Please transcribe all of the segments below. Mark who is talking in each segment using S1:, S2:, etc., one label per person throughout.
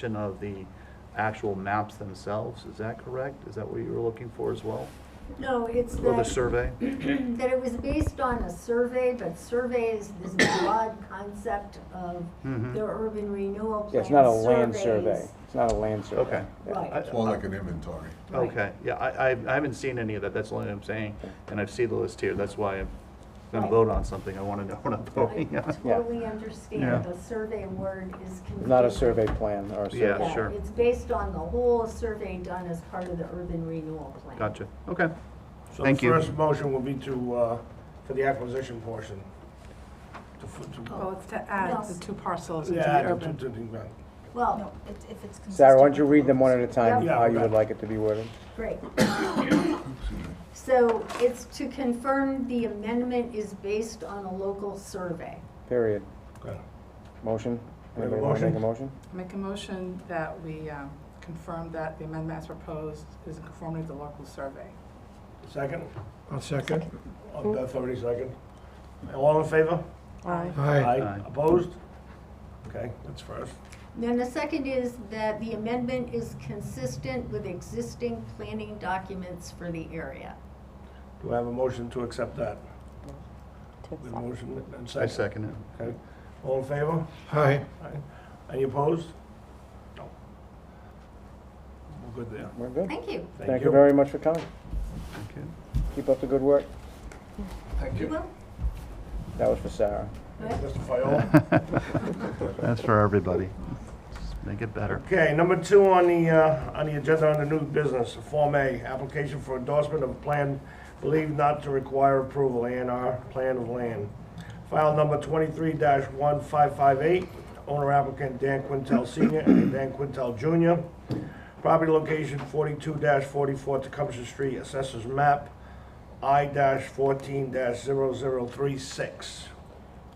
S1: presentation of the actual maps themselves, is that correct? Is that what you were looking for as well?
S2: No, it's
S1: Or the
S2: that,
S1: survey?
S2: that it was based on a survey, but survey is this broad concept of
S1: Mhm.
S2: the urban renewal plan.
S3: Yeah, it's not a land survey.
S2: surveys.
S3: It's not a land survey.
S1: Okay.
S3: Yeah.
S2: Right.
S1: I-
S4: It's more like an inventory.
S2: Right.
S1: Okay, yeah, I, I I haven't seen any of that, that's the only thing I'm saying, and I've seen the list here, that's why I'm gonna
S2: Right.
S1: vote on something, I wanna know what I'm voting
S2: I
S1: on.
S2: totally
S1: Oh, Yeah.
S2: understand the survey word is confusing.
S3: Not a survey plan or a
S1: Yeah.
S3: survey.
S1: sure.
S2: It's based on the whole survey done as part of the urban renewal plan.
S1: Gotcha, okay,
S5: So the
S1: Thank you.
S5: first motion will be to, uh, for the acquisition portion. To f- to-
S6: Well, it's to add
S2: Yes.
S6: the two parcels into
S5: Yeah,
S6: Oh, the
S5: to- to-
S6: urban.
S5: to- to-
S2: Well,
S7: No, it- if it's consistent.
S3: Sarah, why don't you
S7: with
S3: read them one
S7: those.
S3: at a time,
S5: Yeah.
S3: how you
S5: Yeah.
S3: would like it to be worded?
S2: great. So it's to confirm the amendment is based on a local survey.
S3: Period.
S5: okay.
S3: Motion?
S5: We have a
S3: Anybody want to make a
S5: motion?
S3: motion?
S6: Make a motion that we um, confirm that the amendment as proposed is in conformity with the local survey.
S5: Second?
S8: I'll second.
S5: Uh, Beth already second. All in favor?
S6: Aye.
S8: Aye.
S1: Aye.
S5: Opposed? Okay, that's first.
S2: Then the second is that the amendment is consistent with existing planning documents for the area.
S5: Do I have a motion to accept that? We have a motion and
S1: I
S5: second.
S1: second it.
S5: Okay. All in favor?
S8: Aye.
S5: Aye. Any opposed? No. We're good there.
S3: We're good.
S2: Thank you.
S3: Thank you very much for coming.
S1: Okay.
S3: Keep up the good work.
S5: Thank you.
S2: Well,
S3: That was for Sarah.
S2: good.
S5: Mr. Fiola?
S1: That's for everybody, Just make it better.
S5: Okay, number two on the, uh, on the agenda on the new business, Form A, application for endorsement of plan believed not to require approval, A and R, plan of land. File number twenty-three one five five eight, owner applicant Dan Quintel Senior and Dan Quintel Junior. Property location forty-two forty-four Tecumseh Street, assessors map, I fourteen 36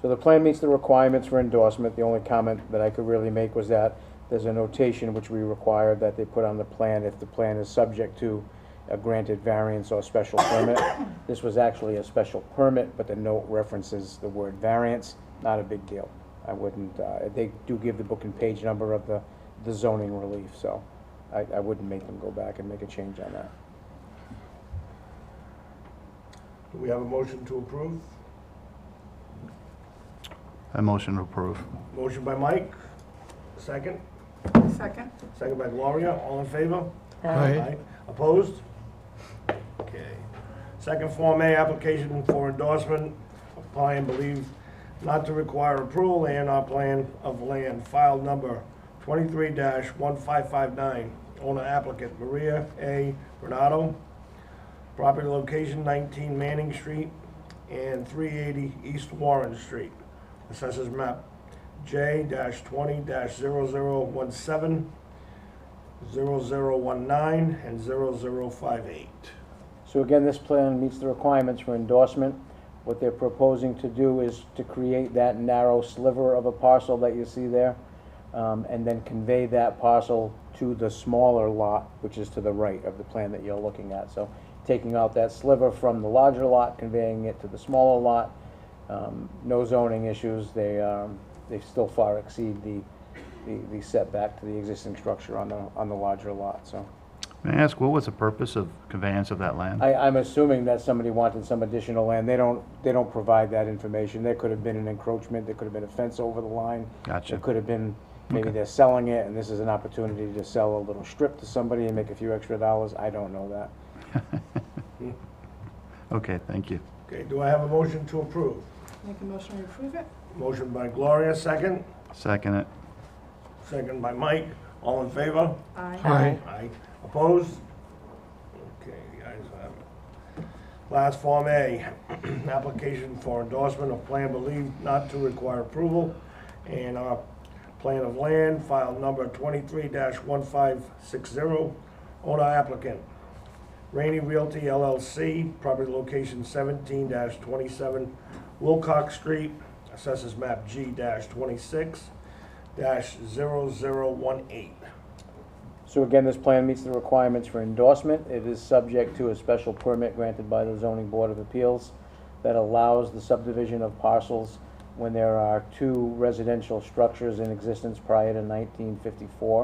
S3: So the plan meets the requirements for endorsement. The only comment that I could really make was that there's a notation which we require that they put on the plan if the plan is subject to a granted variance or special permit. This was actually a special permit, but the note references the word variance, not a big deal. I wouldn't, uh, they do give the book and page number of the, the zoning relief, so I, I wouldn't make them go back and make a change on that.
S5: Do we have a motion to approve?
S1: I motion to approve.
S5: Motion by Mike, second?
S6: Second?
S5: Second by Gloria, all in favor?
S8: Aye.
S5: Opposed? Okay. Second Form A, application for endorsement, apply and believe not to require approval, A and R plan of land, file number twenty-three one five five nine, owner applicant Maria A. Renato, property location nineteen Manning Street and three eighty East Warren Street. Assessors map J twenty 17 0019 and 0058.
S3: So again, this plan meets the requirements for endorsement. What they're proposing to do is to create that narrow sliver of a parcel that you see there, um, and then convey that parcel to the smaller lot, which is to the right of the plan that you're looking at. So taking out that sliver from the larger lot, conveying it to the smaller lot. Um, No zoning issues, they, um, they still far exceed the, the- the setback to the existing structure on the, on the larger lot, so.
S1: May I ask, what was the purpose of conveyance of that land?
S3: I, I'm assuming that somebody wanted some additional land. They don't, they don't provide that information. There could have been an encroachment, there could have been a fence over the line.
S1: Gotcha.
S3: There could have been, maybe they're selling it, and this is an opportunity to sell a little strip to somebody and make a few extra dollars. I don't know that.
S1: Okay, thank you.
S5: Okay, do I have a motion to approve?
S6: Make a motion to approve it?
S5: Motion by Gloria, second.
S1: Second it.
S5: Second by Mike. All in favor?
S6: Aye.
S8: Aye.
S5: Aye. Opposed? Okay, the ayes have it. Last Form A, application for endorsement of plan believed not to require approval and our plan of land, file number twenty-three one five six zero, owner applicant. Rainey Realty LLC, property location seventeen twenty-seven Wilcox Street, assessors map G twenty-six 18
S3: So again, this plan meets the requirements for endorsement. It is subject to a special permit granted by the zoning board of appeals that allows the subdivision of parcels when there are two residential structures in existence prior to nineteen fifty-four.